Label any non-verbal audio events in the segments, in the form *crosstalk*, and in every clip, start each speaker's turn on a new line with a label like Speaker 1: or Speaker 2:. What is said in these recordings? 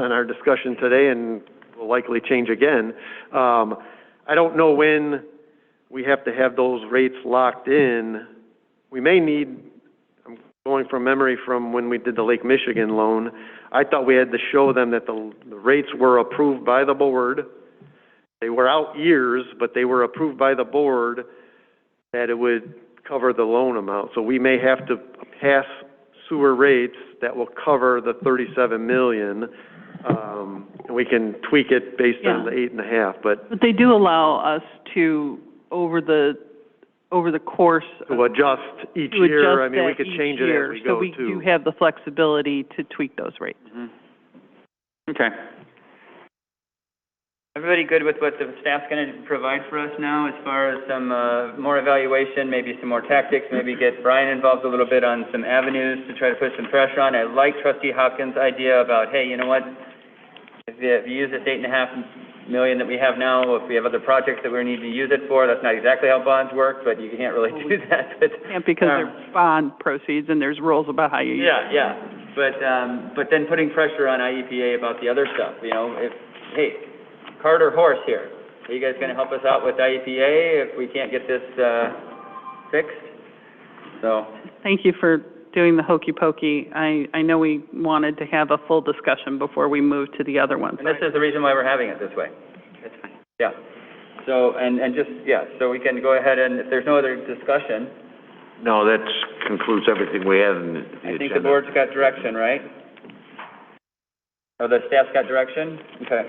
Speaker 1: on our discussion today and will likely change again. Um, I don't know when we have to have those rates locked in. We may need, I'm going from memory from when we did the Lake Michigan loan, I thought we had to show them that the, the rates were approved by the board. They were out years, but they were approved by the board that it would cover the loan amount. So we may have to pass sewer rates that will cover the thirty-seven million. Um, and we can tweak it based on the eight and a half, but
Speaker 2: But they do allow us to, over the, over the course. of-
Speaker 1: to adjust each
Speaker 2: to
Speaker 1: year, I
Speaker 2: adjust
Speaker 1: mean, we
Speaker 2: that
Speaker 1: could
Speaker 2: each
Speaker 1: change it as
Speaker 2: year,
Speaker 1: we go too.
Speaker 2: So we do have the flexibility to tweak those rates.
Speaker 3: Okay. Everybody good with what the staff's gonna provide for us now as far as some, uh, more evaluation, maybe some more tactics, maybe get Brian involved a little bit on some avenues to try to put some pressure on? I like trustee Hopkins' idea about, hey, you know what? If you, if you use this eight and a half million that we have now, if we have other projects that we need to use it for, that's not exactly how bonds work, but you can't really do *laughs* that, but.
Speaker 2: Yeah, because
Speaker 3: Um,
Speaker 2: they're bond proceeds and there's rules about how you use.
Speaker 3: yeah, yeah, but, um, but then putting pressure on IEPA about the other stuff, you know, if, hey, cart or horse here, are you guys gonna help us out with IEPA if we can't get this, uh, fixed? So,
Speaker 2: Thank you for doing the hokey pokey. I, I know we wanted to have a full discussion before we moved to the other ones.
Speaker 3: and this is the reason why we're having it this way. Yeah, so, and, and just, yeah, so we can go ahead and, if there's no other discussion,
Speaker 4: No, that concludes everything we had in the
Speaker 3: I
Speaker 4: agenda.
Speaker 3: think the board's got direction, right? Or the staff's got direction? Okay.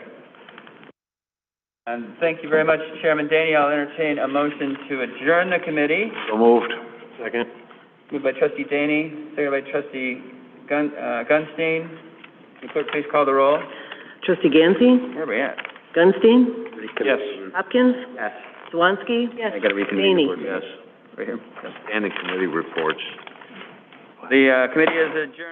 Speaker 3: And thank you very much, Chairman Danny. I'll entertain a motion to adjourn the committee,
Speaker 4: So moved.
Speaker 1: Second.
Speaker 3: moved by trustee Danny, seconded by trustee Gun, uh, Gunstein. Will clerk please call the roll?
Speaker 5: Trustee Gansey?
Speaker 3: Where are we at?
Speaker 5: Gunstein?
Speaker 1: Yes.
Speaker 5: Hopkins?
Speaker 3: Yes.
Speaker 5: Swansky?
Speaker 3: I gotta reconvene the
Speaker 5: Daney?
Speaker 3: board.
Speaker 4: Yes.
Speaker 3: Right here.
Speaker 4: And the committee reports.
Speaker 3: The, uh, committee is adjourned.